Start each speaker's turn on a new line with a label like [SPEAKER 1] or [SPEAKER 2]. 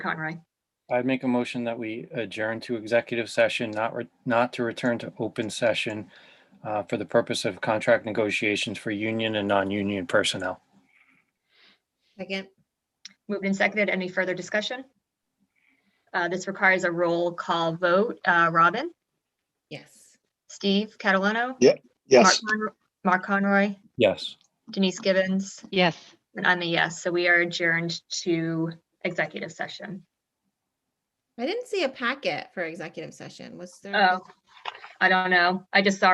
[SPEAKER 1] Conroy.
[SPEAKER 2] I'd make a motion that we adjourn to executive session, not, re- not to return to open session uh, for the purpose of contract negotiations for union and non-union personnel.
[SPEAKER 3] Second,
[SPEAKER 1] Moved and seconded. Any further discussion? Uh, This requires a roll call vote. Uh, Robin?
[SPEAKER 3] yes.
[SPEAKER 1] Steve Catalano? Mark
[SPEAKER 4] Yes,
[SPEAKER 1] Conro- Mark Conroy?
[SPEAKER 2] Yes.
[SPEAKER 1] Denise Gibbons?
[SPEAKER 5] Yes.
[SPEAKER 1] And I'm a yes. So we are adjourned to executive session.
[SPEAKER 3] I didn't see a packet for executive session. Was there?
[SPEAKER 1] Oh, I don't know. I just saw